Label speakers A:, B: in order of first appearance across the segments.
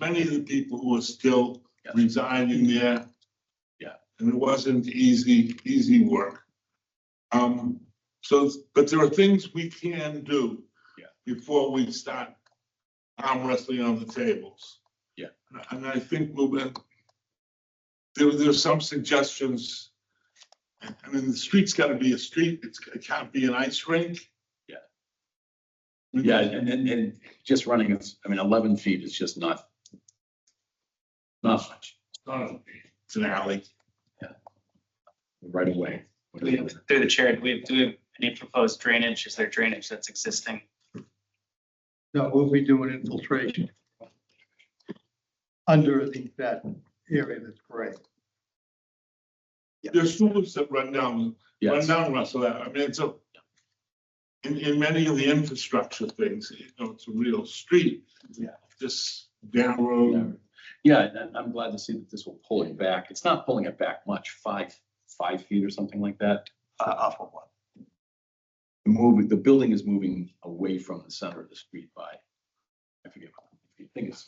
A: many of the people who are still
B: Yes.
A: residing there.
B: Yeah.
A: And it wasn't easy, easy work. Um, so, but there are things we can do.
B: Yeah.
A: Before we start arm wrestling on the tables.
B: Yeah.
A: And I think we'll, be- there, there's some suggestions. I mean, the street's gotta be a street, it's, it can't be an ice rink.
B: Yeah.
A: We-
B: Yeah,
C: Mm-hmm.
B: and, and, and just running, it's- I mean, eleven feet is just not. Not much,
A: It's an alley.
B: right away.
C: We have- Through the chair, do we have, do we have any proposed drainage? Is there drainage that's existing?
D: No, we'll be doing infiltration under the, that area that's gray.
A: There's sewers that run down, run
B: Yes,
A: down Russell Ave. I mean, it's a. In, in many of the infrastructure things, you know, it's a real street.
B: Yeah.
A: This narrow,
B: yeah, and I'm- I'm glad to see that this will pull it back. It's not pulling it back much, five, five feet or something like that.
D: Uh, off of one.
B: Moving, the building is moving away from the center of the street by, I forget, how many feet. I think it's,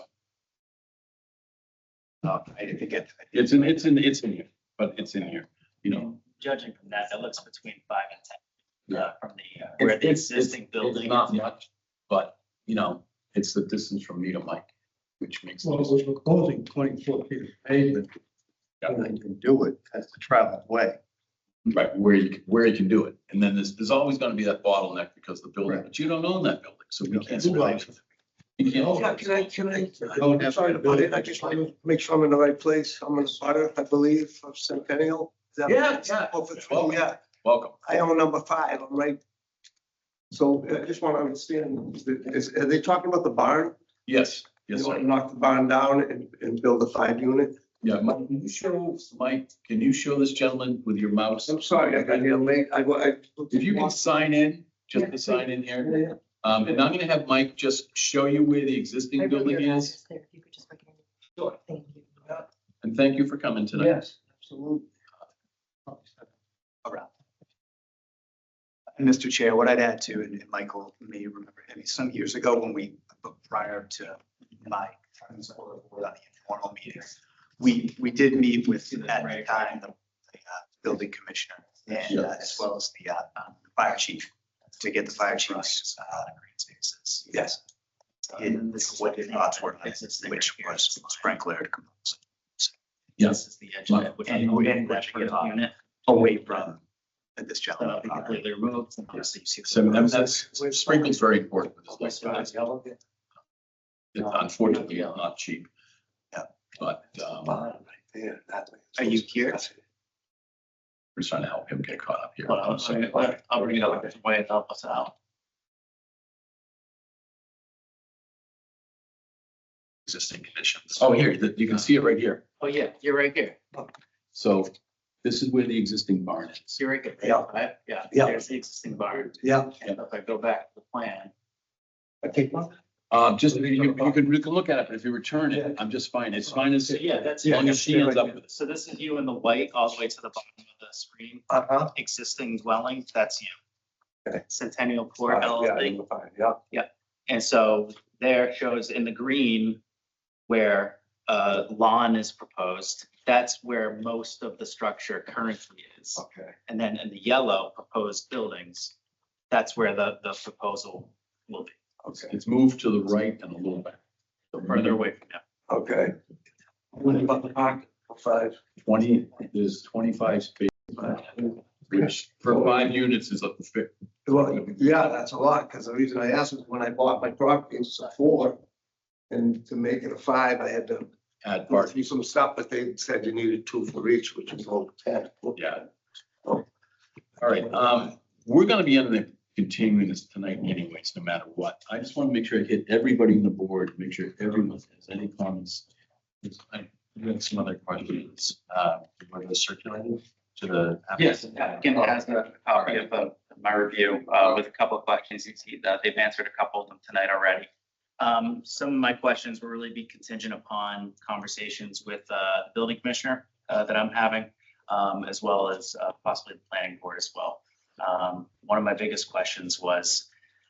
D: No, I didn't get.
B: it's in, it's in, it's in here, but it's in here, you know.
C: Judging from that, that looks between five and ten. uh, From the, uh,
B: It's-
C: where the
B: it's- it's-
C: existing building.
B: It's
C: is.
B: Not much, but, you know, it's the distance from me to Mike, which makes.
D: Well, we're proposing twenty-four feet of pavement, and they can do it, that's the traveled way.
B: Right, where you, can- where you can do it. And then there's, there's always gonna be that bottleneck because the building,
D: Right.
B: but you don't own that building, so we
D: No,
B: can't.
D: it's right.
B: You can't-
E: Yeah, can I, can I,
D: Don't
E: I'm
D: have
E: sorry to butt in, I just want to make sure I'm in the right place, I'm in Sutter, I believe, of Centennial. Is that-
B: Yeah, yeah.
E: Over three, yeah,
B: Welcome.
E: I own number five, I'm right. So I just want to understand, is, are they talking about the barn?
B: Yes,
E: They
B: yes,
E: want
B: sir.
E: to Knock the barn down and, and build a five unit?
B: Yeah, Mike, can you show, Mike, can you show this gentleman with your mouse?
E: I'm sorry, I got here late, I, wa- I.
B: If you can sign in, just to sign in here. Um, and I'm gonna have Mike just show you where the
F: I
B: existing
F: wrote
B: building
F: your
B: is.
F: address there, if you could just recommend it.
E: Sure.
F: Thank you.
B: And thank you for coming tonight.
D: Yes, absolutely.
C: Mr. Chair, what I'd add to, and and Michael may remember, I mean, some years ago when we, prior to my friends or or the informal meetings, we, we did meet with, at the time, the the, uh, building commissioner and uh, as well as the uh, um, fire chief to get the fire chief's uh, green spaces. Yes. And this is what the thoughts were, which was sprinkler.
B: Yes.
C: is the
B: edge of it,
C: which I'm hoping that we get away from this gentleman. uh, Completely removed.
B: So and that's, sprinkling's very important. with this stuff. It's Unfortunately, not cheap.
C: Yeah.
B: But, um,
E: Barn right there, that way.
C: Are you here?
B: we're trying to help him get caught up here.
C: Hold on, sorry, I'll uh, I'll bring it up, way it help us out.
B: Existing conditions. Oh, here, that- you can see it right here.
C: Oh, yeah, you're right here,
B: So this is where the existing barn is.
C: you're right here.
E: Yeah.
C: Right? Yeah.
E: Yeah.
C: There's the existing barn,
E: Yeah.
C: and if I go back to the plan,
E: Okay.
B: Um, just, you, you can, you can look at it, but if you return it, I'm just fine. It's fine as,
C: so yeah, that's.
B: as long as she ends up with it.
C: So this is you in the white, all the way to the bottom of the screen,
E: Uh-huh.
C: existing dwelling, that's you.
E: Okay.
C: Centennial Court
E: Yeah,
C: LLC.
E: number five, Yeah.
C: And so there shows in the green where uh, lawn is proposed, that's where most of the structure currently is.
E: Okay.
C: And then in the yellow proposed buildings, that's where the, the proposal will be,
E: Okay.
B: It's moved to the right and a little back.
C: so further away from now.
E: Okay. What about the park? Five.
B: Twenty, there's twenty-five spaces, which for five units is a,
E: Well, yeah, that's a lot, because the reason I asked is when I bought my property, it was a four. And to make it a five, I had to
B: add
E: go
B: parking.
E: through some stuff, but they said you needed two for each, which is all ten.
B: Yeah. All right, um, we're gonna be in the continuing this tonight anyways, no matter what. I just want to make sure I hit everybody in the board, make sure everyone has any comments. I have some other questions, uh, were those circulated to the.
G: Yes, Ken has a copy of uh, my review uh, with a couple of questions. You see
C: uh,
G: that They've answered a couple of them tonight already.
C: Um, some of my questions will really be contingent upon conversations with, uh, the building commissioner, uh, that I'm having, um, as well as uh, possibly the planning board as well. Um, one of my biggest questions was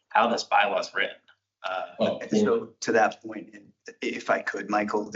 C: how this bylaw is written. Uh,
B: Oh,
G: So to that point, and
D: if I could, Michael,